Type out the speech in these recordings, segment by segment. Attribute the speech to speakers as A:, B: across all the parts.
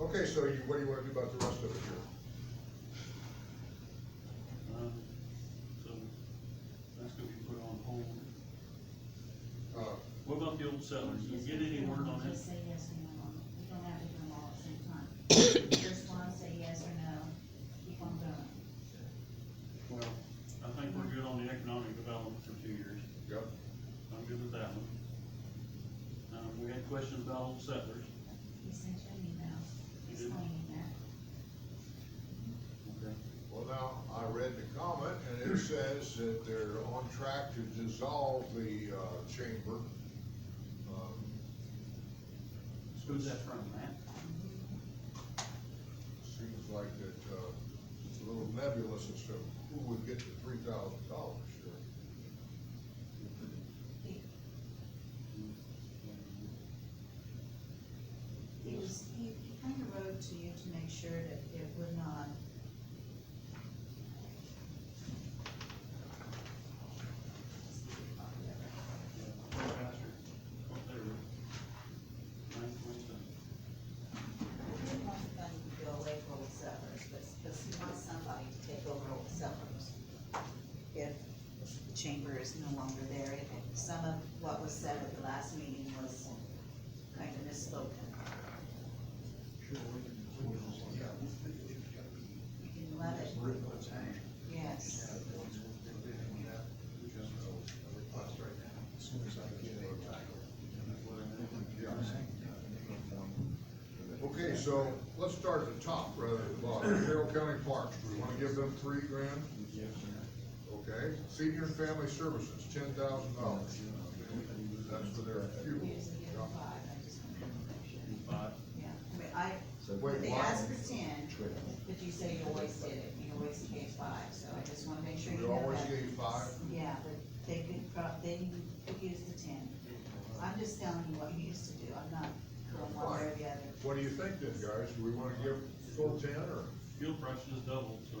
A: Okay, so you, what do you wanna do about the rest of it here?
B: Um, So, that's gonna be put on hold.
A: Uh,
B: What about the old settlers? Did you get any word on that?
C: Just say yes or no, we don't have to do them all at the same time. Just one, say yes or no, keep on going.
B: Well, I think we're good on the economic development for two years.
A: Yep,
B: I'm good with that one. Um, we had questions about old settlers.
C: He sent you an email
B: You did?
C: explaining that.
B: Okay.
A: well now, I read the comment and it says that they're on track to dissolve the, uh, chamber. Um,
B: Who's that from, Matt?
A: Seems like that, uh, it's a little nebulous as to who would get the three thousand dollars here.
D: He was, he, he kind of wrote to you to make sure that it would not. He didn't want the money to go away for old settlers, but, but he wants somebody to take over old settlers. If the chamber is no longer there, and some of what was said at the last meeting was kind of misspoken. You can let it, yes.
A: Okay, so let's start at the top rather than the bottom. Carroll County Parks, we wanna give them three grand? Okay, senior and family services, ten thousand dollars. That's for their fuel.
D: Here's the other five, I just want to make sure.
B: Five.
D: Yeah, I mean, I,
A: Wait,
D: when they
A: why?
D: asked for ten, but you said you always did it, you always gave five, so I just wanna make sure you
A: We
D: know that.
A: always gave five?
D: Yeah, but they could prob, they could use the ten. I'm just telling you what you used to do, I'm not going one way or the other.
A: What do you think then, guys? Do we wanna give full ten or
B: Fuel prices doubled, so.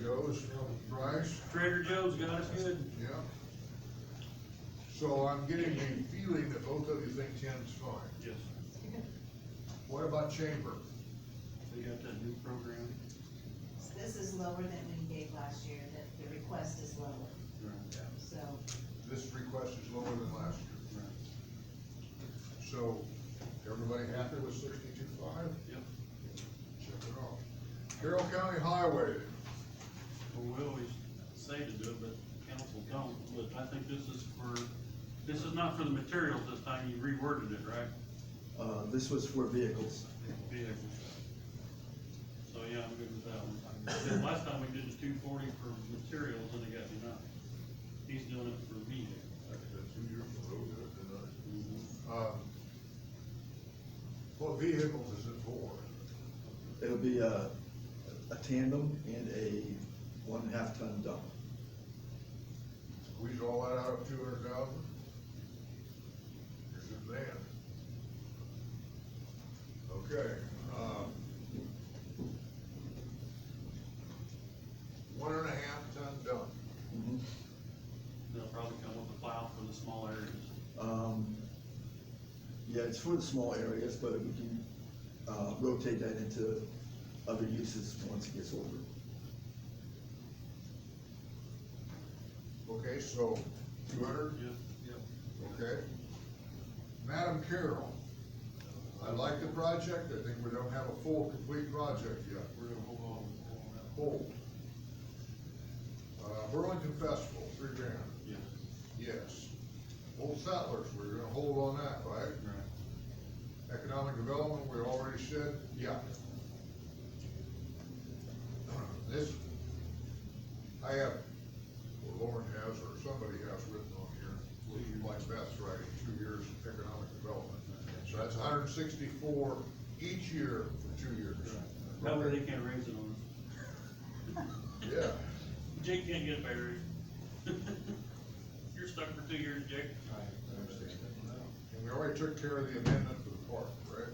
A: Joe's price?
B: Trader Joe's got us good.
A: Yeah. So I'm getting the feeling that both of you think ten's fine.
B: Yes.
A: What about chamber?
B: They got that new program.
D: So This is lower than we gave last year, that the request is lower,
B: Right.
D: so
A: This request is lower than last year. So, everybody happy with sixty-two five?
B: Yep.
A: Check it off. Carroll County Highway,
B: Well, we always say to do it, but council don't, but I think this is for, this is not for the materials this time, you reworded it, right?
E: Uh, this was for vehicles.
B: Vehicles. So, yeah, I'm good with that one. Then last time we did the two forty for materials and it got denied. He's doing it for vehicle.
A: that's a two year for road, isn't it? Um, What vehicles is it for?
E: It'll be a, a tandem and a one and a half ton dump.
A: Squeeze all that out of two hundred thousand? Here's a van. Okay, um. One and a half ton dump,
B: They'll probably come with a plow for the small areas.
E: Um, yeah, it's for the small areas, but we can, uh, rotate that into other uses once it gets older.
A: okay, so two hundred,
B: Yep.
A: okay? Madam Carroll, I like the project, I think we don't have a full, complete project yet.
B: We're gonna hold on, hold on that.
A: Hold. Uh, Burlington Festival, three grand.
B: Yeah.
A: Yes. Old settlers, we're gonna hold on that, right?
B: Right.
A: Economic development, we already said, yeah. This, I have, or Lauren has, or somebody has written on here, looking like Beth's writing, two years of economic development. So that's hundred and sixty-four each year for two years.
B: That way they can't raise it on us.
A: Yeah.
B: Jake can't get married. You're stuck for two years, Jake.
A: And we already took care of the amendment for the park, right?
E: uh,